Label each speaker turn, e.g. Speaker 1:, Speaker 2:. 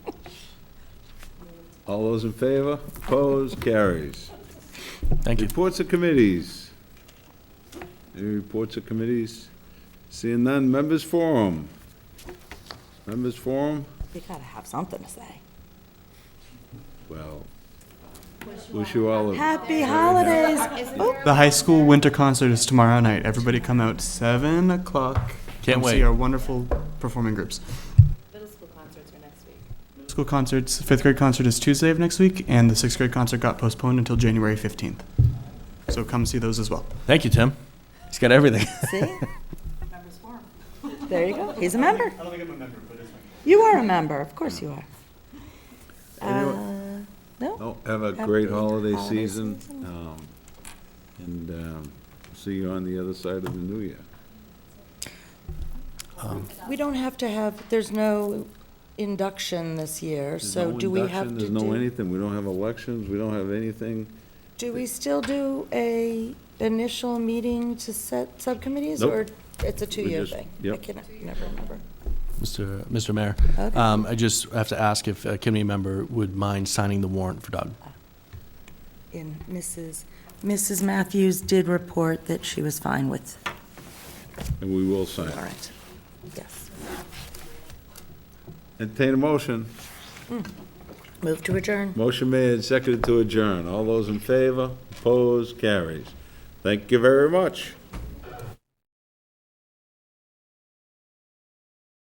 Speaker 1: All those in favor? Opposed? Carries.
Speaker 2: Thank you.
Speaker 1: Reports of committees. Any reports of committees? Seeing none, members forum. Members forum?
Speaker 3: You gotta have something to say.
Speaker 1: Well, wish you all a
Speaker 3: Happy holidays. Oop.
Speaker 4: The high school winter concert is tomorrow night. Everybody come out seven o'clock.
Speaker 2: Can't
Speaker 4: Come
Speaker 2: wait.
Speaker 4: See our wonderful performing groups.
Speaker 5: Middle school concerts are next week.
Speaker 4: School concerts. Fifth grade concert is Tuesday of next week, and the sixth grade concert got postponed until January fifteenth. So come see those as well.
Speaker 2: Thank you, Tim. He's got everything.
Speaker 3: See? There you go. He's a member.
Speaker 4: I don't think I'm a member, but it's
Speaker 3: You are a member. Of course you are.
Speaker 1: Anyone-
Speaker 3: Uh, No?
Speaker 1: Oh, have a
Speaker 3: Have
Speaker 1: great
Speaker 3: a
Speaker 1: holiday
Speaker 3: holiday
Speaker 1: season,
Speaker 3: season.
Speaker 1: um, and, um, see you on the other side of the new year.
Speaker 3: We don't have to have, there's no induction this year,
Speaker 1: There's
Speaker 3: so
Speaker 1: no
Speaker 3: do we
Speaker 1: induction,
Speaker 3: have to do?
Speaker 1: There's no anything, we don't have elections, we don't have anything.
Speaker 3: Do we still do a initial meeting to set subcommittees?
Speaker 1: Nope.
Speaker 3: Or it's a two-year
Speaker 1: just-
Speaker 3: thing? I
Speaker 1: yep.
Speaker 3: can never remember.
Speaker 2: Mr. Mr. Mayor,
Speaker 3: Okay.
Speaker 2: um, I just have to ask if a committee member would mind signing the warrant for Doug.
Speaker 3: And Mrs., Mrs. Matthews did report that she was fine with,
Speaker 1: And we will sign.
Speaker 3: all right, yes.
Speaker 1: Entertain a motion.
Speaker 3: Move to adjourn.
Speaker 1: Motion made and seconded to adjourn. All those in favor? Opposed? Carries. Thank you very much.